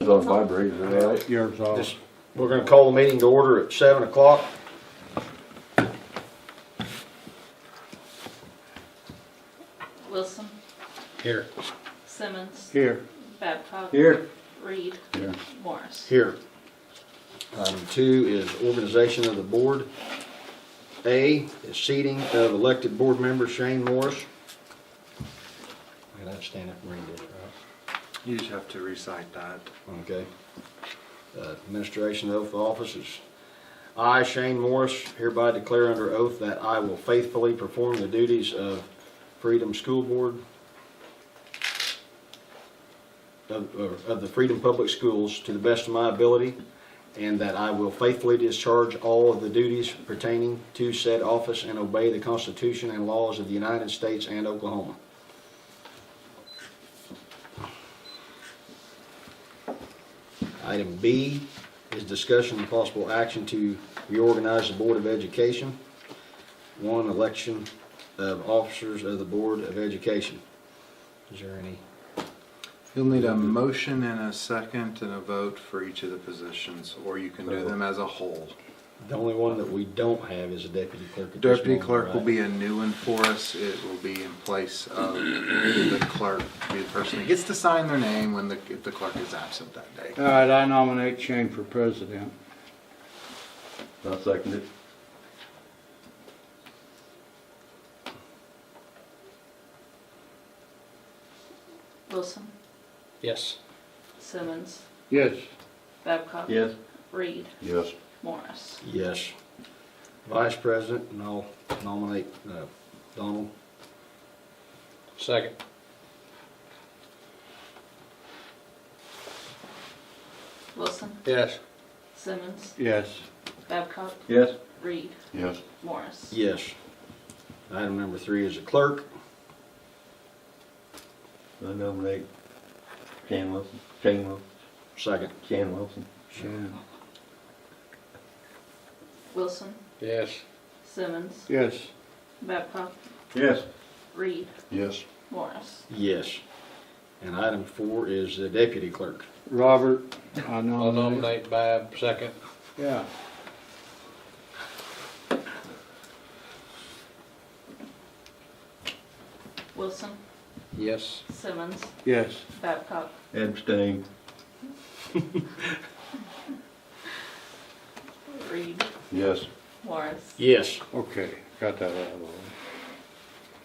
It's on vibrator, right? Yours Oh. Just, off. we're gonna call the meeting to order at seven o'clock. Wilson, Here. Simmons, Here. Babcock. Reed. Here. Morris. Here. Item two is organization of the board. A is seating of elected board member Shane Morris. I gotta stand up and read this, right? You just have to recite that. Okay. Uh, Administration oath of office is, I, Shane Morris, hereby declare under oath that I will faithfully perform the duties of Freedom School Board of, or of the Freedom Public Schools to the best of my ability, and that I will faithfully discharge all of the duties pertaining to said office and obey the Constitution and laws of the United States and Oklahoma. Item B is discussion and possible action to reorganize the Board of Education. One, election of officers of the Board of Education. Is there any? You'll need a motion and a second and a vote for each of the positions, or you can do them as a whole. The only one that we don't have is a deputy clerk at this Deputy moment, clerk will right? be a new one for us. It will be in place of the clerk, be the person that gets to sign their name when the, if the clerk is absent that day. All right, I nominate Shane for president. I second it. Wilson, Yes. Simmons, Yes. Babcock. Yes? Reed, Yes. Morris. Yes. Vice President, and I'll nominate uh, Donald. Second. Wilson, Yes. Simmons, Yes. Babcock. Yes? Reed, Yes. Morris. Yes. Item number three is a clerk. I nominate Jan Wilson, Shane Wilson, Second. Jan Wilson. Shan. Wilson, Yes. Simmons, Yes. Babcock. Yes. Reed, Yes. Morris. Yes. And item four is the deputy clerk. Robert, I I'll nominate. nominate Bab second. Yeah. Wilson, Yes. Simmons, Yes. Babcock. Abstain. Reed, Yes. Morris. Yes. Okay, got that out of the way.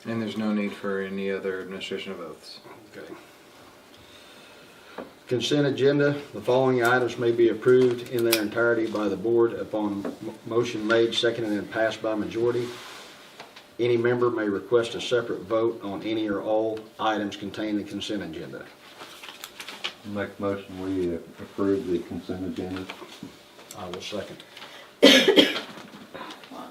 And there's no need for any other administration of oaths. Okay. Consent agenda, the following items may be approved in their entirety by the board upon m- motion made, seconded, and passed by majority. Any member may request a separate vote on any or all items contained in the consent agenda. Make a motion, we uh, approve the consent agenda. I will second. One moment.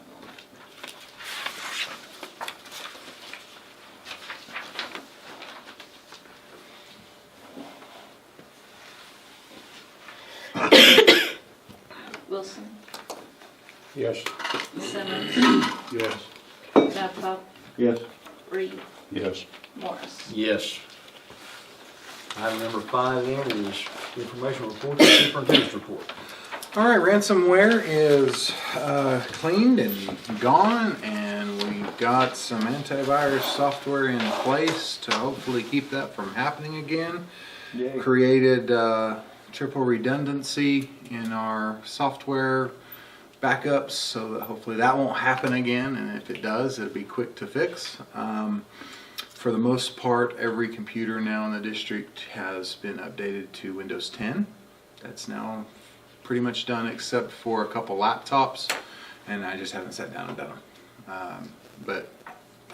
Wilson, Yes. Simmons, Yes. Babcock, Yes. Reed, Yes. Morris. Yes. Item number five then is information report, the superintendent's report. All right, ransomware is uh, cleaned and gone, and we've got some antivirus software in place to hopefully keep that from happening again. Created uh, triple redundancy in our software backups so that hopefully that won't happen again, and if it does, it'll be quick to fix. Um, for the most part, every computer now in the district has been updated to Windows 10. That's now pretty much done except for a couple laptops, and I just haven't sat down and done them. Um, but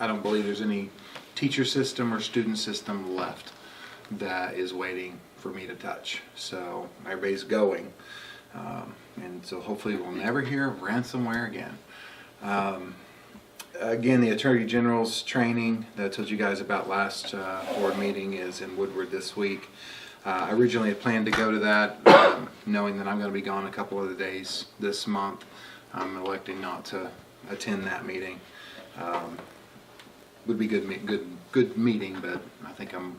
I don't believe there's any teacher system or student system left that is waiting for me to touch. So everybody's going. Um, and so hopefully we'll never hear of ransomware again. Um, again, the Attorney General's training that I told you guys about last uh, board meeting is in Woodward this week. Uh, I originally had planned to go to that, um, knowing that I'm going to be gone a couple of the days this month. I'm electing not to attend that meeting. Um, would be good, me- good, good meeting, but I think I'm